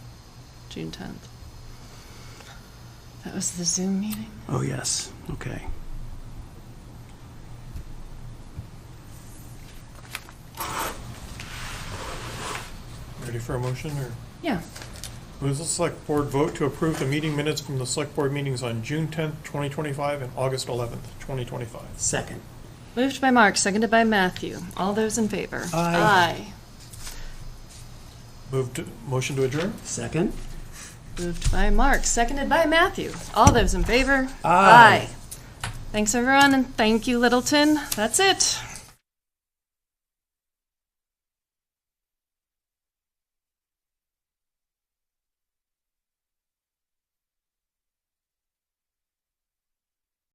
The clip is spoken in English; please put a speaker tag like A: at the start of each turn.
A: June 10th. That was the Zoom meeting.
B: Oh, yes, okay.
C: Ready for a motion or?
A: Yeah.
C: Move the select board vote to approve the meeting minutes from the select board meetings on June tenth, twenty twenty-five and August eleventh, twenty twenty-five.
B: Second.
A: Moved by Mark, seconded by Matthew. All those in favor?
B: Aye.
C: Moved, to- motion to adjourn?
B: Second?
A: Aye. Moved by Mark, seconded by Matthew. All those in favor?
B: Aye.
A: Thanks, everyone, and thank you, Littleton. That's it.